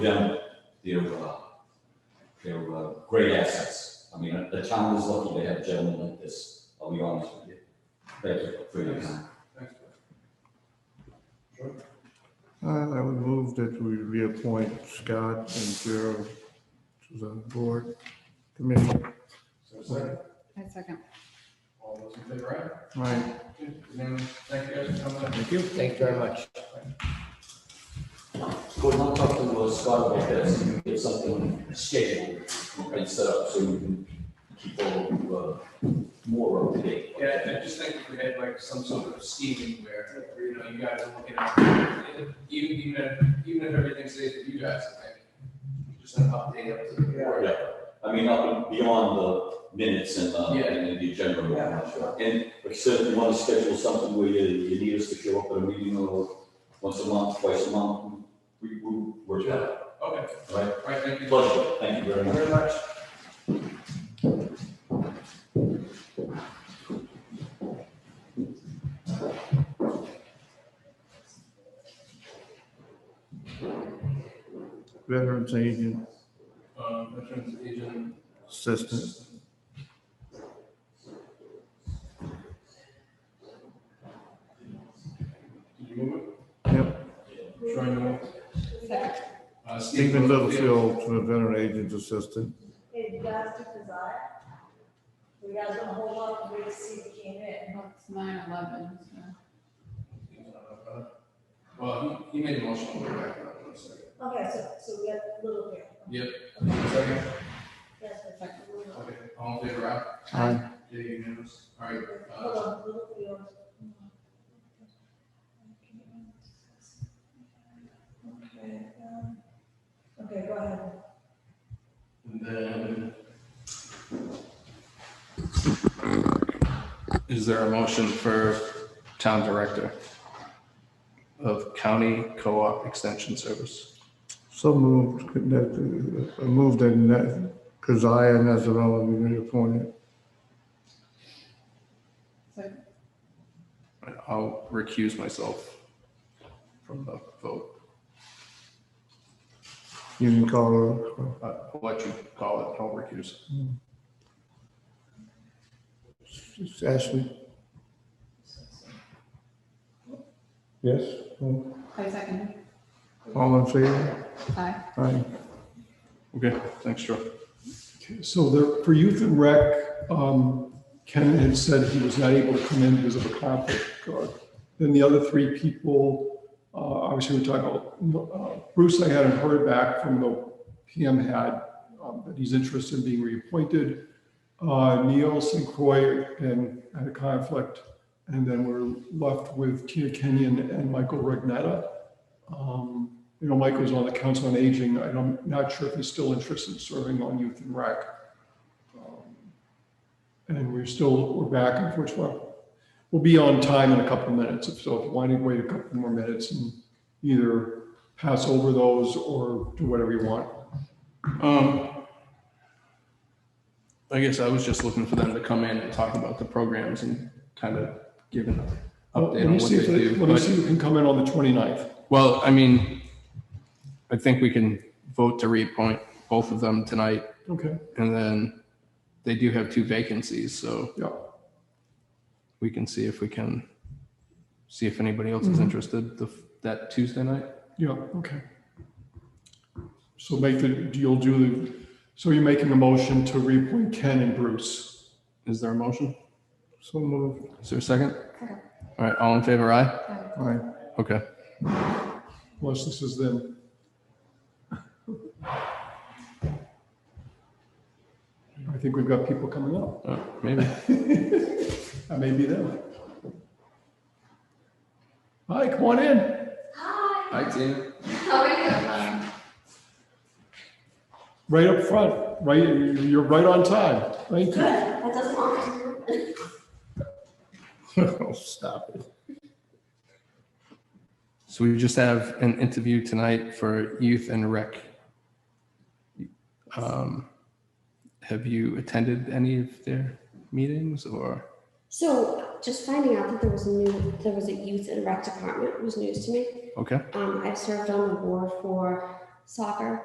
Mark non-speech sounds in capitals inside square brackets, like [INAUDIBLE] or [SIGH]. them, they're, uh, they're, uh, great assets. I mean, the town is lucky to have gentlemen like this, I'll be honest with you. Thank you for your time. Uh, I would move that we reappoint Scott and Gerald to the board committee. So second, I second. all those in favor, Right, aye? Unanimous. Thank you guys for coming in. Thank you. Thank you very much. Go and talk to uh, Scott about this, and get something scheduled and set up so we can keep all, uh, more up to date. Yeah, I just think if we had like some sort of scheme where, you know, you guys are looking at, even, even if, even if everything stays with you guys, I think, just an update up to the board. Yeah, I mean, up beyond the minutes and, uh, Yeah. and the agenda. and Yeah, whatnot. sure. And, like I said, if you wanna schedule something where you, you need us to show up at a meeting or once a month, twice a month, we, we, we're, Yeah. all Okay, right? all right, thank you. Pleasure, thank you very much. Very much. veterans agent Um, veterans agent. assistant. Did you move Yep, it? Troy, no? Second. Uh, Stephen Littlefield to the veteran agent assistant. Hey, you guys do desire? You guys gonna hold up and wait to see if he came in? It's nine eleven, so. uh, Well, he, he made a motion, I'll go back to that one second. Okay, so, so we got a little bit. Yep, second, Yes, that's like a little. okay, all in favor, aye? Aye. Yeah, unanimous, all right, Hold uh, on, little field. Okay, um, okay, go ahead. and then. Is there a motion for town director of county co-op extension service? So moved, that, uh, moved that Keziah and Nazarella be reappointed. So, I'll recuse myself from the vote, You can call her, Uh, I'll let you call it, I'll recuse. uh, Ashley. Yes, all I second. all in favor? Aye. Aye. Okay, thanks, Joe. So there, for youth and rec, um, Ken had said he was not able to come in because of a conflict. Uh, Then the other three people, uh, obviously we're talking about, uh, Bruce, I hadn't heard back from the PM had, um, that he's interested in being reappointed. Uh, Neil St. Croix and had a conflict. And then we're left with Tina Kenyon and Michael Regnetta. Um, you know, Mike was on the Council on Aging. I don't- I'm not sure if he's still interested in serving on Youth and Rec. Um, And we're still, we're back, unfortunately. We'll be on time in a couple of minutes. If So if you want to wait a couple more minutes and either pass over those or do whatever you want. Um, I guess I was just looking for them to come in and talk about the programs and kind of give an update Let on me what see they if do. Let me But- see who can come in on the 29th. Well, I mean, I think we can vote to reappoint both of them tonight, Okay, and then they do have two vacancies, so yeah. we can see if we can, see if anybody else is interested the, that Tuesday night. Yeah, okay. So make the, you'll do, the. so you're making a motion to reappoint Ken and Bruce. Is there a motion? So moved, Is there a second? Second. All right, all in favor, aye? aye. Okay. Unless this is them. I think we've got people coming up. Uh, Maybe. That may be them. Hi, come on in. Hi, Hi, Tina. how are you? Right up front, right, you're right on time. Good, Thank you. that doesn't want to. [LAUGHS] Oh, Stop it. So we just have an interview tonight for youth and rec. Um, Have you attended any of their meetings or? So just finding out that there was new, there was a youth and rec department was news to me. Okay, Um, I've served on the board for soccer